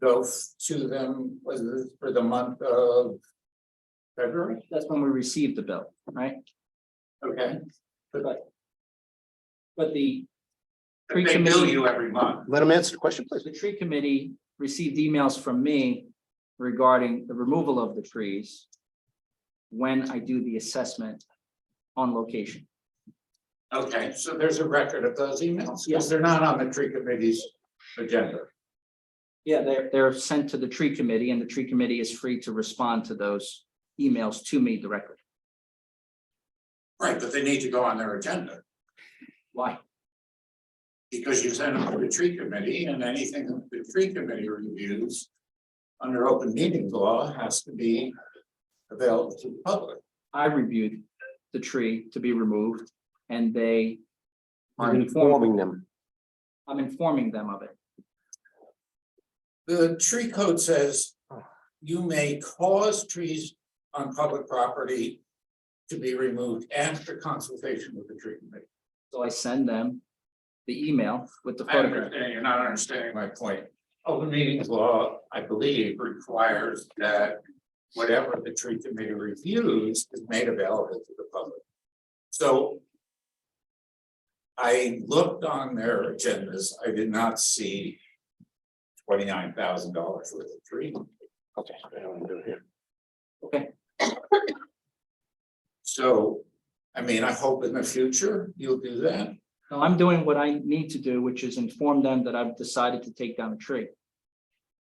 goes to them, was it for the month of February? That's when we received the bill, right? Okay. But the tree They bill committee, you every month. Let him answer the question, please. the tree committee received emails from me regarding the removal of the trees when I do the assessment on location. Okay, so there's a record of those emails, Yes. because they're not on the tree committee's agenda. Yeah, they're, they're sent to the tree committee and the tree committee is free to respond to those emails to me directly. Right, but they need to go on their agenda, Why? because you send them to the tree committee, and anything that the tree committee reviews under open meeting law has to be available to the public. I reviewed the tree to be removed and they You're Informing them. I'm informing them of it. The tree code says you may cause trees on public property to be removed after consultation with the tree committee. So I send them the email with the I photograph. understand, you're not understanding my point. Open meetings law, I believe, requires that whatever the tree committee reviews is made available to the public. So I looked on their agendas, I did not see twenty-nine thousand dollars worth of tree. Okay. I know what I'm doing here. So, I mean, I hope in the future you'll do that. No, I'm doing what I need to do, which is inform them that I've decided to take down a tree.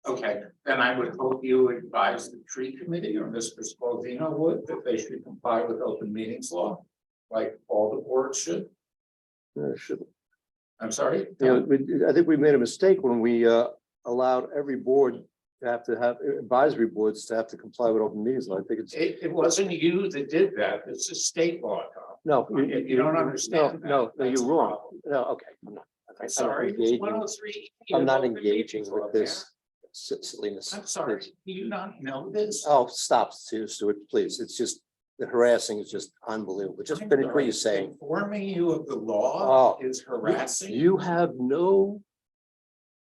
Okay, then I would hope you advise the tree committee or Mr. Spalvino would, that they should comply with open meetings law. Like all the boards should, No, it shouldn't. I'm sorry. You know, we- I think we made a mistake when we uh, allowed every board to have to have advisory boards to have to comply with open meetings. law. I think it's, It, it wasn't you that did that, it's a state law, Tom. no. If you don't understand. that, No, no, that's you're a wrong. problem. No, okay. I'm not- I'm sorry, it's engaging. one oh three. I'm not engaging with this si- silliness. I'm sorry, do you not know this? Oh, stop, Stu- Stuart, please. It's just, the harassing is just unbelievable. Just I'm finish what sorry. you're saying. Informing you of the law Oh. is harassing. You have no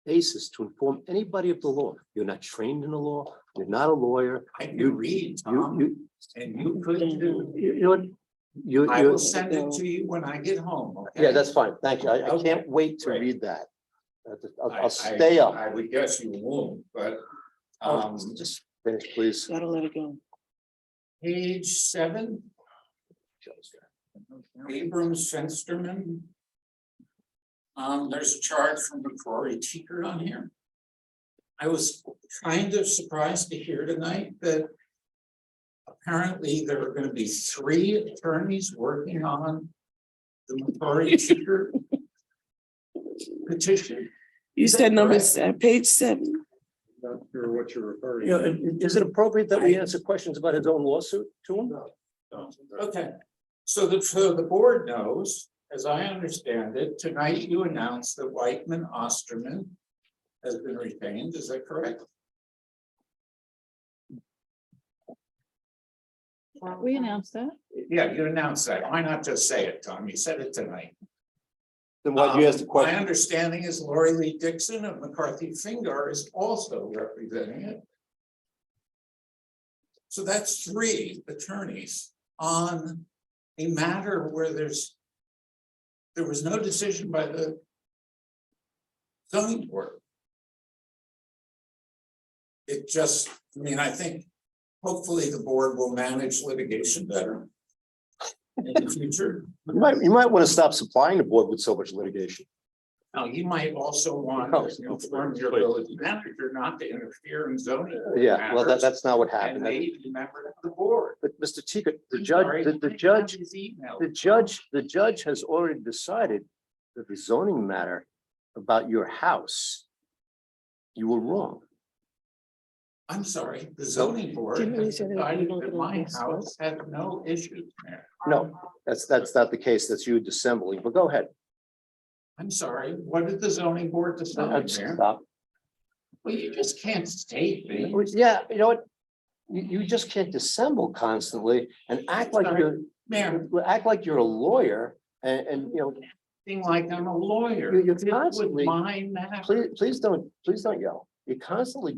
basis to inform anybody of the law. You're not trained in the law. You're not a lawyer. I can read, You, Tom, you, and you could Uh-huh. do. you, you know what? you, I you. will send it to you when I get home, okay? Yeah, that's fine. Thank you. I, I Okay, can't wait to great. read that. I'll just- I'll, I- I'll stay I- up. I would guess you won't, but, um, Um, just finish, please. Gotta let it go. page seven, Abrams Fensterman. Um, there's a charge from McCrory Teeter on here. I was kind of surprised to hear tonight that apparently there are gonna be three attorneys working on the McCrory Teeter petition. You Is that said number, correct? se- page seven. Not sure what you're referring You know, i- is it appropriate that we answer questions about his own lawsuit to him? Okay, so the, so the board knows, as I understand it, tonight you announced that Whitman Osterman has been retained, is that correct? We announced that. Yeah, you announced that. Why not just say it, Tom? You said it tonight. Then why do you ask the Um, question? My understanding is Lori Lee Dixon of McCarthy Finger is also representing it. So that's three attorneys on a matter where there's. There was no decision by the. Zoning board. It just, I mean, I think hopefully the board will manage litigation better. In the future. You might, you might want to stop supplying the board with so much litigation. Now, you might also want No, to inform your please. village manager not to interfere in zoning. Yeah, well, that, matters, that's not what Uh, And happened. That- maybe a member of the board. But Mr. Teague, the I'm judge, sorry, the- the I have judge, his email. the judge, the judge has already decided that the zoning matter about your house, you were wrong. I'm sorry, the zoning board Didn't we has say that we decided don't that get my this? house had no issues, Mayor. No, that's, that's not the case. That's you dissembling, but go ahead. I'm sorry, what did the zoning board decide, Mayor? Stop. Well, you just can't state me. Well, Yeah, you know what? You, you just can't dissemble constantly and act like Sorry. you're, Mayor, act like you're a lawyer and, and, you know, being like I'm a lawyer. You're- you're This was constantly- My matter. please, please don't, please don't yell. It constantly